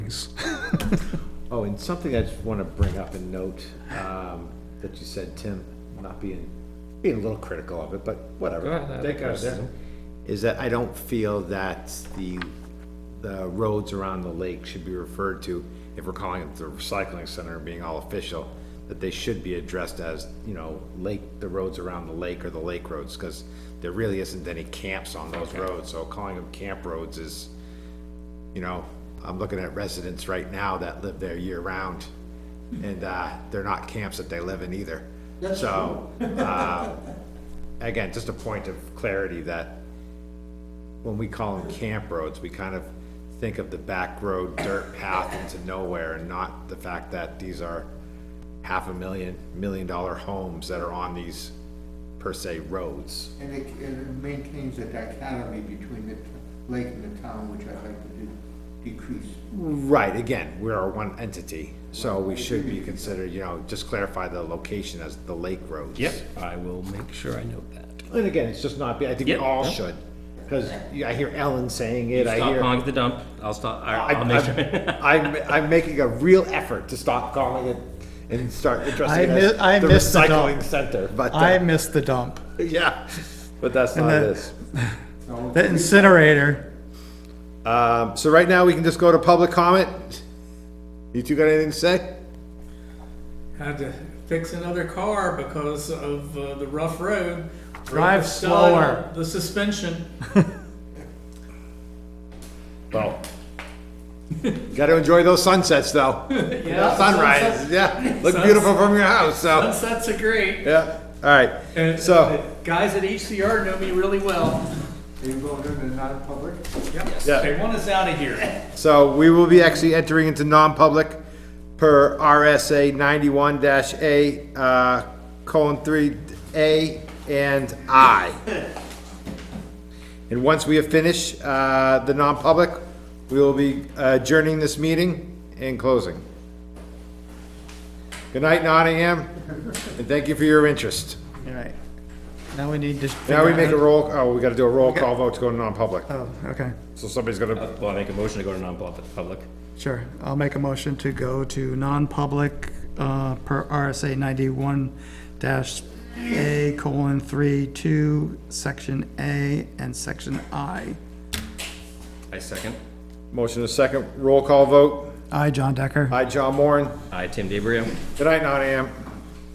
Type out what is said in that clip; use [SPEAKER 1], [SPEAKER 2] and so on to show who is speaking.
[SPEAKER 1] things.
[SPEAKER 2] Oh, and something I just want to bring up and note, um, that you said, Tim, not being, being a little critical of it, but
[SPEAKER 1] Go ahead, I
[SPEAKER 2] whatever.
[SPEAKER 1] have a
[SPEAKER 2] Take it as it is.
[SPEAKER 1] criticism.
[SPEAKER 2] Is that I don't feel that the, the roads around the lake should be referred to, if we're calling it the recycling center and being all official, that they should be addressed as, you know, lake, the roads around the lake or the lake roads, because there really isn't any camps on those roads, so calling them camp roads is, you know, I'm looking at residents right now that live there year-round, and, uh, they're not camps that they live in either. So, uh, again, just a point of clarity that when we call them camp roads, we kind of think of the back road dirt path into nowhere and not the fact that these are half a million, million dollar homes that are on these per se roads.
[SPEAKER 3] And it, and it maintains a dichotomy between the t- lake and the town, which I'd like to de- decrease.
[SPEAKER 2] Right, again, we are one entity, so we should be considered, you know, just clarify the location as the lake roads.
[SPEAKER 1] I will make sure I note that.
[SPEAKER 2] And again, it's just not, I think we
[SPEAKER 1] Yep,
[SPEAKER 2] all
[SPEAKER 1] no.
[SPEAKER 2] should, because I hear Ellen saying it, I
[SPEAKER 1] Stop
[SPEAKER 2] hear.
[SPEAKER 1] calling it the dump, I'll stop, I-
[SPEAKER 2] I-
[SPEAKER 1] I'll make
[SPEAKER 2] I'm-
[SPEAKER 1] sure.
[SPEAKER 2] I'm, I'm making a real effort to stop calling it and start
[SPEAKER 4] I
[SPEAKER 2] addressing it as
[SPEAKER 4] mi- I
[SPEAKER 2] the
[SPEAKER 4] missed the dump.
[SPEAKER 2] recycling center, but,
[SPEAKER 4] I
[SPEAKER 2] uh,
[SPEAKER 4] missed the dump.
[SPEAKER 2] yeah, but that's not
[SPEAKER 4] that-
[SPEAKER 2] this.
[SPEAKER 3] So
[SPEAKER 4] The incinerator,
[SPEAKER 2] Um, so right now, we can just go to public comment. You two got anything to say?
[SPEAKER 5] had to fix another car because of uh, the rough road.
[SPEAKER 4] Drive
[SPEAKER 5] The stud,
[SPEAKER 4] slower.
[SPEAKER 5] The suspension.
[SPEAKER 2] Well. Gotta enjoy those sunsets, though.
[SPEAKER 5] Yeah,
[SPEAKER 2] Sunrise,
[SPEAKER 5] sunsets-
[SPEAKER 2] yeah, look beautiful from your house, so,
[SPEAKER 5] Sunsets are great.
[SPEAKER 2] yeah, all right,
[SPEAKER 5] And
[SPEAKER 2] so,
[SPEAKER 5] the guys at HCR know me really well.
[SPEAKER 3] are you going into non-public?
[SPEAKER 2] yeah,
[SPEAKER 5] They want us out of here.
[SPEAKER 2] so we will be actually entering into non-public per RSA ninety-one dash A, uh, colon three, A and I. And once we have finished, uh, the non-public, we will be adjourning this meeting and closing. Good night, Nottingham, and thank you for your interest.
[SPEAKER 4] all right. Now we need to.
[SPEAKER 2] Now we
[SPEAKER 4] figure
[SPEAKER 2] make a
[SPEAKER 4] out-
[SPEAKER 2] roll, oh, we gotta do a roll call vote to go to non-public,
[SPEAKER 4] Oh, okay,
[SPEAKER 2] so somebody's gonna,
[SPEAKER 1] Well, I make a motion to go to non-public.
[SPEAKER 4] sure. I'll make a motion to go to non-public, uh, per RSA ninety-one dash A colon three two, section A and section I.
[SPEAKER 1] I second.
[SPEAKER 2] motion a second, roll call vote,
[SPEAKER 4] I, John Decker.
[SPEAKER 2] aye, John Moran,
[SPEAKER 1] I, Tim DeBrio.
[SPEAKER 2] good night, Nottingham.